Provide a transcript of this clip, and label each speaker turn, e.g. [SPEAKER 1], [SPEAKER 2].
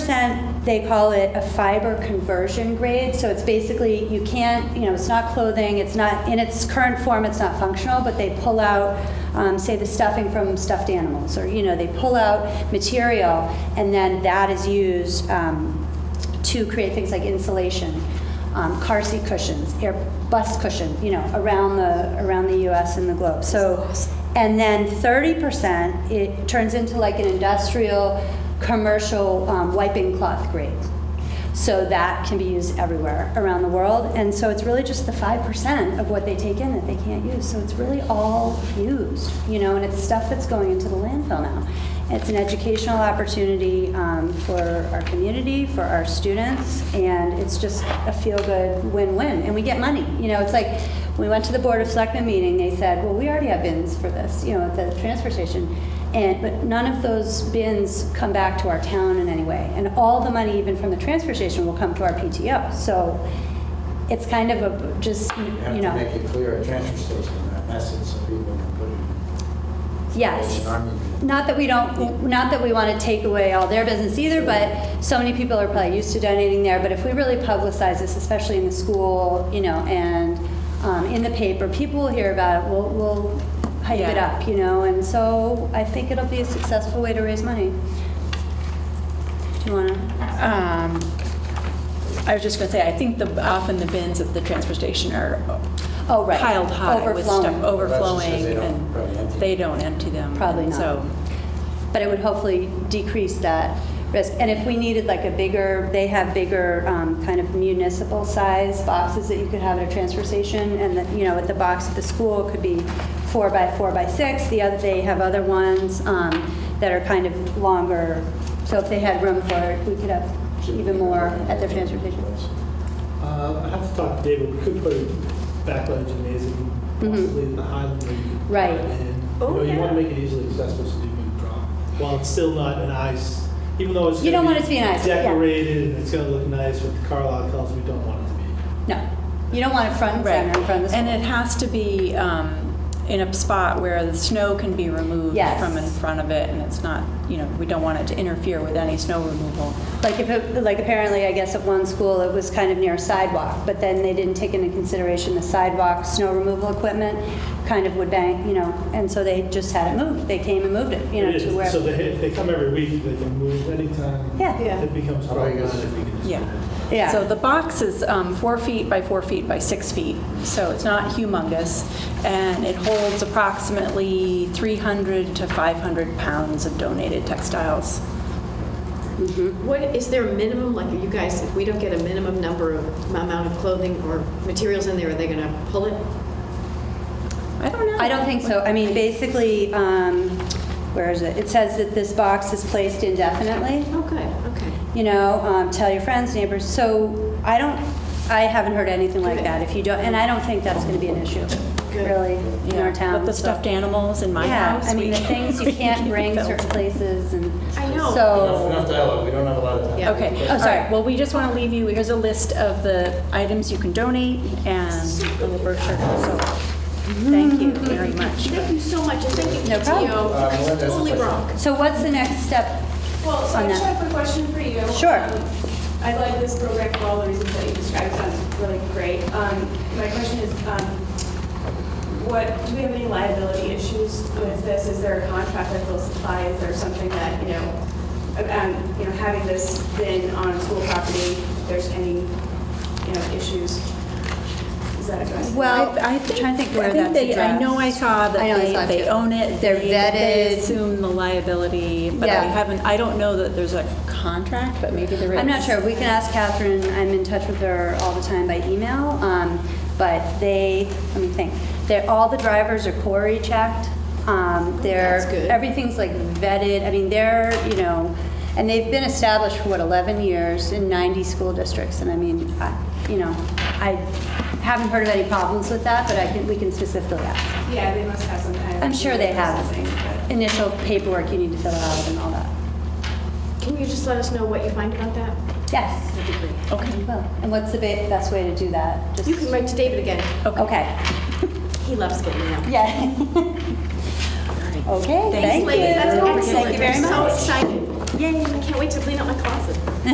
[SPEAKER 1] percent, they call it a fiber conversion grade, so it's basically, you can't, you know, it's not clothing, it's not, in its current form, it's not functional, but they pull out, um, say, the stuffing from stuffed animals, or, you know, they pull out material, and then that is used um, to create things like insulation, um, car seat cushions, air, bus cushions, you know, around the, around the US and the globe. So, and then 30%, it turns into like an industrial, commercial um, wiping cloth grade. So that can be used everywhere around the world. And so it's really just the 5% of what they take in that they can't use. So it's really all used, you know, and it's stuff that's going into the landfill now. It's an educational opportunity um, for our community, for our students, and it's just a feel-good win-win. And we get money, you know, it's like, we went to the Board of Selectmen meeting, they said, well, we already have bins for this, you know, at the transfer station. And, but none of those bins come back to our town in any way. And all the money, even from the transfer station, will come to our PTO. So it's kind of a, just, you
[SPEAKER 2] You
[SPEAKER 1] know.
[SPEAKER 2] have to make it clear at transfer station, that message, so people can put it.
[SPEAKER 1] Yes.
[SPEAKER 2] Salvation Army.
[SPEAKER 1] Not that we don't, not that we want to take away all their business either, but so many people are probably used to donating there. But if we really publicize this, especially in the school, you know, and um, in the paper, people will hear about it, we'll, we'll hype it
[SPEAKER 3] Yeah.
[SPEAKER 1] up, you know? And so I think it'll be a successful way to raise money. Do you want to?
[SPEAKER 3] Um, I was just going to say, I think the, often the bins at the transfer station are
[SPEAKER 1] Oh, right.
[SPEAKER 3] piled high with stuff
[SPEAKER 1] Overflowing.
[SPEAKER 3] overflowing.
[SPEAKER 2] That's just 'cause they don't probably
[SPEAKER 3] and
[SPEAKER 2] empty
[SPEAKER 3] They don't empty them.
[SPEAKER 1] Probably
[SPEAKER 3] and
[SPEAKER 1] not.
[SPEAKER 3] So,
[SPEAKER 1] But it would hopefully decrease that risk. And if we needed like a bigger, they have bigger um, kind of municipal size boxes that you could have at a transfer station. And that, you know, at the box at the school could be four by four by six. The other, they have other ones um, that are kind of longer. So if they had room for it, we could have even more at the transfer station.
[SPEAKER 4] Uh, I have to talk to David, we could put it back by the gymnasium, possibly in the Highland where you could. put
[SPEAKER 1] Mm-hmm. Right.
[SPEAKER 4] it in. You know, you want to make it easily accessible so that you can draw, while it's still not an ice, even though it's.
[SPEAKER 1] You don't
[SPEAKER 4] gonna
[SPEAKER 1] want it to be an ice, yeah.
[SPEAKER 4] Decorated, and it's gonna look nice with the Carlisle colors, we don't want it to be.
[SPEAKER 1] No, you don't want it front and
[SPEAKER 3] right.
[SPEAKER 1] center in front of the
[SPEAKER 3] And
[SPEAKER 1] school.
[SPEAKER 3] it has to be um, in a spot where the snow can be removed
[SPEAKER 1] Yes.
[SPEAKER 3] from in front of it, and it's not, you know, we don't want it to interfere with any snow removal.
[SPEAKER 1] Like if, it- like apparently, I guess at one school, it was kind of near a sidewalk, but then they didn't take into consideration the sidewalk, snow removal equipment kind of would bang, you know, and so they just had it moved. They came and moved it, you know,
[SPEAKER 4] It
[SPEAKER 1] to
[SPEAKER 4] is,
[SPEAKER 1] where.
[SPEAKER 4] So they, if they come every week, they can move anytime.
[SPEAKER 1] Yeah. Yeah.
[SPEAKER 4] It becomes
[SPEAKER 2] How about you guys?
[SPEAKER 4] problematic.
[SPEAKER 3] Yeah.
[SPEAKER 1] Yeah.
[SPEAKER 3] So the box is um, four feet by four feet by six feet, so it's not humongous, and it holds approximately 300 to 500 pounds of donated textiles.
[SPEAKER 5] What, is there a minimum, like, are you guys, if we don't get a minimum number of, amount of clothing or materials in there, are they going to pull it?
[SPEAKER 3] I don't know.
[SPEAKER 1] I don't think so. I mean, basically, um, where is it? It says that this box is placed indefinitely.
[SPEAKER 5] Oh, good, okay.
[SPEAKER 1] you know, um, tell your friends, neighbors. So I don't, I haven't heard anything like that. If you don't, and I don't think that's going to be an issue,
[SPEAKER 5] Good.
[SPEAKER 1] really, in
[SPEAKER 3] Yeah,
[SPEAKER 1] our town.
[SPEAKER 3] But the
[SPEAKER 1] so-
[SPEAKER 3] stuffed animals in my
[SPEAKER 1] yeah,
[SPEAKER 3] house.
[SPEAKER 1] I mean,
[SPEAKER 3] we-
[SPEAKER 1] the things you can't bring
[SPEAKER 3] filled.
[SPEAKER 1] certain places and.
[SPEAKER 5] I know.
[SPEAKER 2] Enough
[SPEAKER 1] So,
[SPEAKER 2] enough dialogue, we don't have a lot of time.
[SPEAKER 5] Yeah.
[SPEAKER 3] Okay,
[SPEAKER 1] Oh,
[SPEAKER 3] all
[SPEAKER 1] sorry.
[SPEAKER 3] right, well, we just want to leave you, here's a list of the items you can donate and a little brochure, so thank you very much.
[SPEAKER 5] Thank you so much, and thank you,
[SPEAKER 1] No problem.
[SPEAKER 2] Uh, Melinda has
[SPEAKER 5] PTO.
[SPEAKER 2] a
[SPEAKER 5] Totally
[SPEAKER 2] question.
[SPEAKER 5] wrong.
[SPEAKER 1] so what's the next step?
[SPEAKER 6] Well, so
[SPEAKER 1] on
[SPEAKER 6] I just
[SPEAKER 1] that.
[SPEAKER 6] have a quick question for you.
[SPEAKER 1] Sure.
[SPEAKER 6] Um, I like this program for all the reasons that you described, It sounds really great. Um, My question is, um, what, do we have any liability issues with this? Is there a contract that will supply, is there something that, you know, um, you know, having this bin on school property, if there's any, you know, issues? Is that addressed?
[SPEAKER 1] Well,
[SPEAKER 3] I- I
[SPEAKER 1] I'm
[SPEAKER 3] think-
[SPEAKER 1] trying to think where
[SPEAKER 3] I think
[SPEAKER 1] that's
[SPEAKER 3] they- I know I
[SPEAKER 1] addressed.
[SPEAKER 3] saw
[SPEAKER 1] I know
[SPEAKER 3] that
[SPEAKER 1] I saw
[SPEAKER 3] they,
[SPEAKER 1] it
[SPEAKER 3] they
[SPEAKER 1] too.
[SPEAKER 3] own it.
[SPEAKER 1] They're
[SPEAKER 3] they- They
[SPEAKER 1] vetted.
[SPEAKER 3] assume the liability, but I
[SPEAKER 1] Yeah.
[SPEAKER 3] haven't, I don't know that there's a contract, but maybe there is.
[SPEAKER 1] I'm not sure. We can ask Catherine. I'm in touch with her all the time by email. Um, but they, let me think. They're, all the drivers are Corey checked. Um, they're,
[SPEAKER 5] That's good.
[SPEAKER 1] everything's like vetted. I mean, they're, you know, and they've been established for what, 11 years in 90 school districts. And I mean, I, you know, I haven't heard of any problems with that, but I can, we can specifically ask.
[SPEAKER 6] Yeah, they must have some kind of.
[SPEAKER 1] I'm sure they have
[SPEAKER 6] Something,
[SPEAKER 1] initial paperwork you need to fill out and all that.
[SPEAKER 5] Can you just let us know what you find about that?
[SPEAKER 1] Yes.
[SPEAKER 3] Okay.
[SPEAKER 1] Well, and what's the ba- best way to do that? Just-
[SPEAKER 5] You can write to David again.
[SPEAKER 1] Okay.
[SPEAKER 5] He loves getting out.
[SPEAKER 1] Yeah. Okay, thank you.
[SPEAKER 5] Ladies, that's
[SPEAKER 1] Thank
[SPEAKER 5] excellent.
[SPEAKER 1] you very
[SPEAKER 5] I'm so
[SPEAKER 1] much.
[SPEAKER 5] excited. Yay. I can't wait to clean up my closet.